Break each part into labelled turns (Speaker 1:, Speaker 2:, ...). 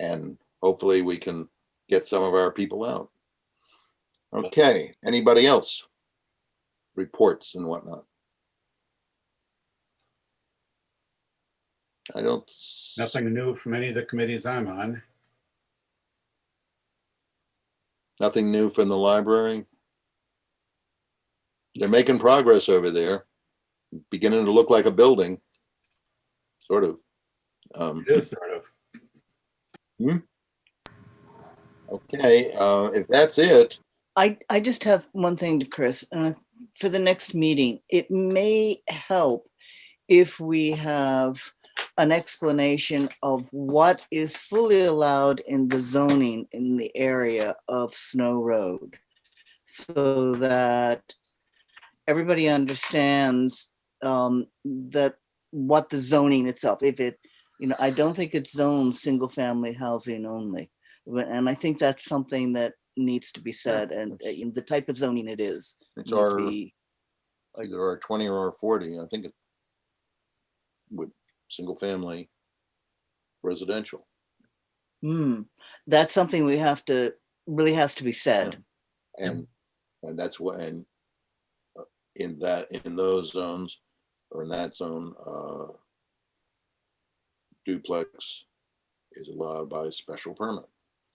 Speaker 1: and hopefully we can get some of our people out. Okay, anybody else? Reports and whatnot. I don't. s-
Speaker 2: Nothing new from any of the committees I'm on.
Speaker 1: Nothing new from the library. They're making progress over there, beginning to look like a building, sort of. Um,
Speaker 2: It is sort of.
Speaker 1: okay, uh, if that's it,
Speaker 3: I, I just have one thing to Chris, uh, for the next meeting, it may help if we have an explanation of what is fully allowed in the zoning in the area of Snow Road. So that everybody understands, um, that what the zoning itself, if it, you know, I don't think it's zoned single-family housing only. But- And I think that's something that needs to be said and uh, you know, the type of zoning it is.
Speaker 1: it's
Speaker 3: needs to
Speaker 1: our,
Speaker 3: be-
Speaker 1: either our twenty or our forty, I think it would, single family residential.
Speaker 3: Hmm, that's something we have to, really has to be said.
Speaker 1: And, and that's what, and uh, in that, in those zones, or in that zone, uh, duplex is allowed by special permit.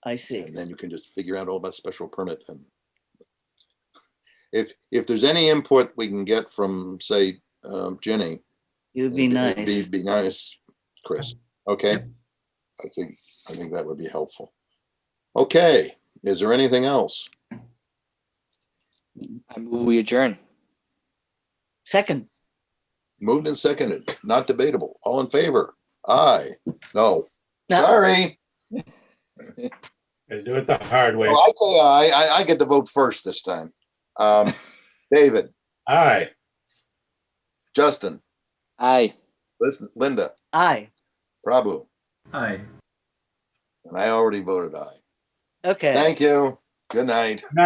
Speaker 3: I see.
Speaker 1: And then you can just figure out all about special permit and if, if there's any input we can get from, say, um, Jenny.
Speaker 3: It would be
Speaker 1: it'd
Speaker 3: nice.
Speaker 1: Be nice, Chris. Okay. I think, I think that would be helpful. Okay, is there anything else?
Speaker 4: I move we adjourn.
Speaker 3: Second,
Speaker 1: Moved and seconded, not debatable. All in favor? Aye. No,
Speaker 3: no,
Speaker 1: sorry.
Speaker 2: Gotta do it the hard way.
Speaker 1: Well, I say aye. I, I get to vote first this time. Um, David,
Speaker 2: Aye.
Speaker 1: Justin,
Speaker 4: Aye.
Speaker 1: listen, Linda,
Speaker 3: aye,
Speaker 1: Prabhu,
Speaker 5: Aye.
Speaker 1: and I already voted aye.
Speaker 3: okay.
Speaker 1: Thank you. Good night.